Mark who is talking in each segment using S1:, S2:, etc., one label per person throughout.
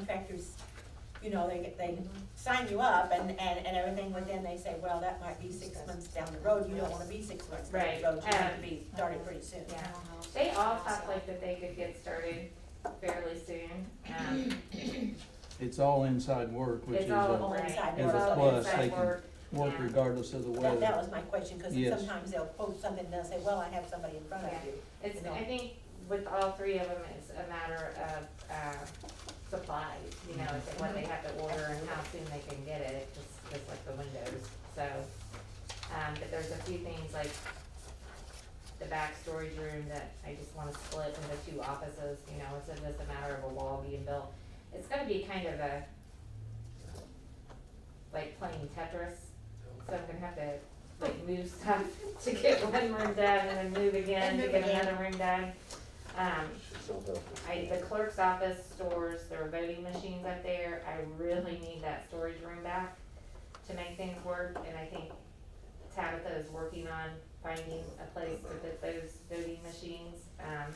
S1: contractors, you know, they, they sign you up and, and, and everything, but then they say, well, that might be six months down the road, you don't wanna be six months down
S2: Right,
S1: the road, you want
S2: um,
S1: to be started pretty soon.
S2: Yeah, they all talk like that they could get started fairly soon, um,
S3: It's all inside work, which is
S2: it's all
S3: a
S1: all
S2: right,
S1: inside
S2: it's
S3: work. As a
S2: all
S3: plus,
S2: inside
S3: they can-
S2: work.
S3: work
S2: yeah.
S3: regardless of the
S1: That, that
S3: weather.
S1: was my question, cause
S3: Yes.
S1: sometimes they'll quote something and they'll say, well, I have somebody in front of
S2: Yeah.
S1: you.
S2: It's,
S1: No.
S2: I think with all three of them, it's a matter of, uh, supplies, you know, it's like what they have to order and how soon they can get it, just, just like the windows, so. Um, but there's a few things like the back storage room that I just wanna split into two offices, you know, it's just a matter of a wall being built. It's gonna be kind of a, like playing Tetris, so I'm gonna have to like move stuff to get one room done and then move again
S1: And
S2: to
S1: move
S2: get
S1: again.
S2: another room done. Um, I, the clerk's office stores their voting machines up there, I really need that storage room back to make things work, and I think Tabitha is working on finding a place to put those voting machines, um,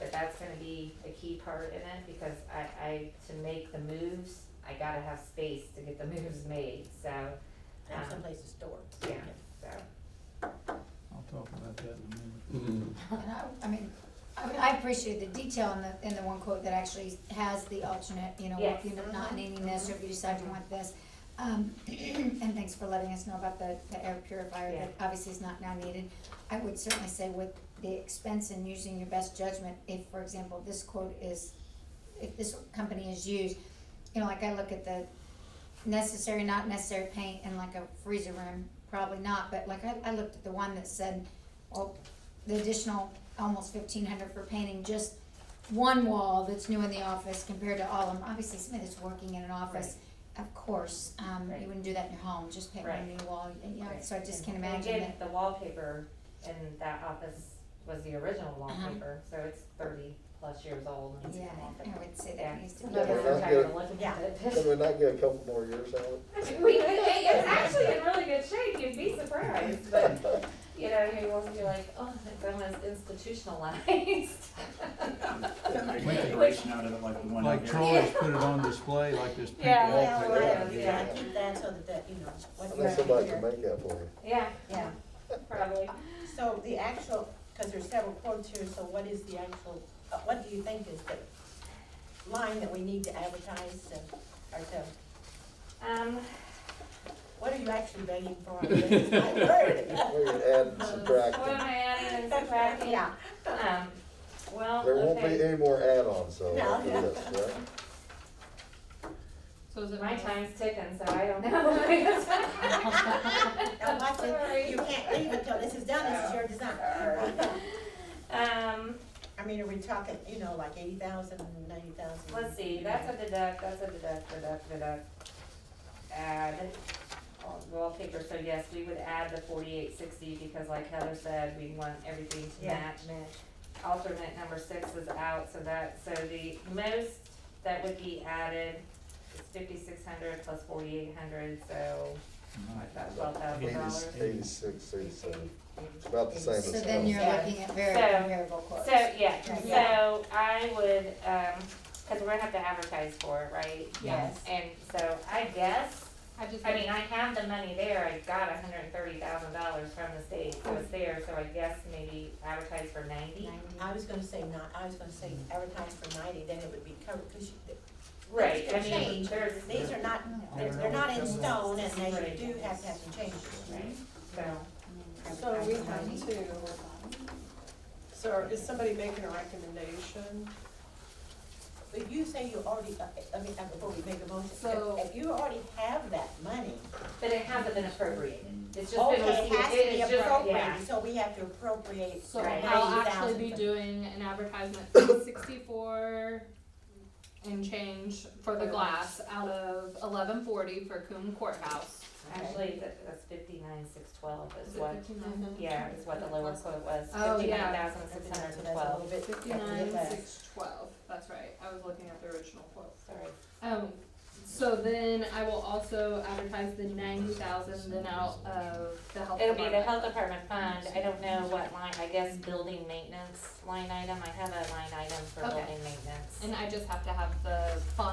S2: but that's gonna be a key part in it, because I, I, to make the moves, I gotta have space to get the moves made, so,
S1: Have
S2: Um,
S1: someplace to store.
S2: yeah, so.
S3: I'll talk about that in a minute.
S4: And I, I mean, I mean, I appreciate the detail in the, in the one quote that actually has the alternate, you know, if you're
S2: Yes. Mm-hmm.
S4: not needing this, or if you decide you want this. Um, and thanks for letting us know about the, the air purifier that obviously is not now needed. I would certainly say with the expense and using your best judgment, if, for example, this quote is, if this company is used, you know, like I look at the necessary, not necessary paint in like a freezer room, probably not, but like I, I looked at the one that said, well, the additional almost fifteen hundred for painting just one wall that's new in the office compared to all of them, obviously somebody that's working in an office, of course, um,
S2: Right.
S4: you wouldn't do that in your home, just paint one
S2: Right.
S4: new wall, and, you know, so I just can't
S2: And again,
S4: imagine that,
S2: The wallpaper in that office was the original wallpaper, so it's thirty plus years old and it's
S4: Uh-huh. yeah,
S2: come off
S4: I
S2: it.
S4: would say
S2: Yeah.
S4: that needs to be.
S2: Nobody's
S4: done.
S2: tired of looking at it.
S5: Can we not get a couple more years out?
S2: We, it's actually in really good shape, you'd be surprised, but, you know, you won't be like, oh, it's almost institutionalized. Mm-hmm.
S6: Make a decoration out of it like the one out
S3: Like
S6: here.
S3: Troy's put it on display, like this pink
S2: Yeah.
S3: wallpaper.
S1: Well,
S5: yeah,
S1: yeah,
S2: yeah.
S1: I keep that so that, that, you know,
S5: I
S1: what
S5: think
S1: you're
S5: somebody
S1: here.
S5: can make that for you.
S2: Yeah,
S1: Yeah,
S2: probably.
S1: so the actual, cause there's several quotes here, so what is the actual, uh, what do you think is the line that we need to advertise to, or to,
S2: Um,
S1: what are you actually begging for? I heard.
S5: We can add and subtract.
S2: what am I adding and subtracting?
S1: Yeah,
S2: Um, well,
S5: There won't be
S2: okay,
S5: any more add-ons, so
S1: No.
S5: after this, right?
S7: So is it
S2: my
S7: my time?
S2: time's ticking, so I don't know.
S1: now watch it, you can't leave until this is done, this is your design.
S2: Um,
S1: I mean, are we talking, you know, like eighty thousand, ninety thousand?
S2: let's see, that's a deduct, that's a deduct, deduct, deduct. Add, all wallpaper, so yes, we would add the forty-eight sixty, because like Heather said, we want everything to
S1: Yeah.
S2: match. Alternate number six was out, so that, so the most that would be added is fifty-six hundred plus forty-eight hundred, so about twelve thousand dollars.
S5: Eighty- Eighty-six, eighty-seven, it's about the same as.
S4: So then you're
S2: Yeah.
S4: looking at very
S2: So-
S4: comparable quotes.
S2: So, yeah,
S1: Yeah.
S2: so I would, um, cause we're gonna have to advertise for it, right?
S7: Yes.
S2: And so I guess,
S7: I just,
S2: I mean, I have the money there, I got hundred and thirty thousand dollars from the state, so it's there, so I guess maybe advertise for ninety?
S4: Ninety.
S1: I was gonna say not, I was gonna say advertise for ninety, then it would be covered, cause you,
S2: Right, I
S1: Things can
S2: mean,
S1: change.
S2: there's,
S1: these are not,
S3: Yeah.
S1: they're not in stone and they do have to have some changes.
S2: right, so,
S8: So we have to, so is somebody making a recommendation?
S1: But you say you already, I mean, uh, before we make a motion,
S8: So-
S1: if you already have that money,
S2: but it hasn't been appropriated, it's just been,
S1: okay, it has
S2: it
S1: to
S2: is
S1: be
S2: just, yeah,
S1: appropriated, so we have to appropriate
S7: so
S2: Right.
S7: I'll
S1: Ninety
S7: actually be
S1: thousand.
S7: doing an advertisement for sixty-four and change for the glass out of eleven forty for Coombe Courthouse.
S2: actually, that, that's fifty-nine, six twelve is
S7: Is it
S2: what,
S7: 59?
S2: yeah, is what the lower quote was,
S7: Oh, yeah.
S2: fifty-nine thousand, six hundred and twelve,
S1: bit.
S7: Fifty-nine, six, twelve, that's right, I was looking at the original quote.
S2: sorry.
S7: Um, so then I will also advertise the ninety thousand then out of the health
S2: It'll be the
S7: department.
S2: health department fund, I don't know what line, I guess building maintenance line item, I have a line item for
S7: Okay.
S2: building maintenance.
S7: And I just have to have the fund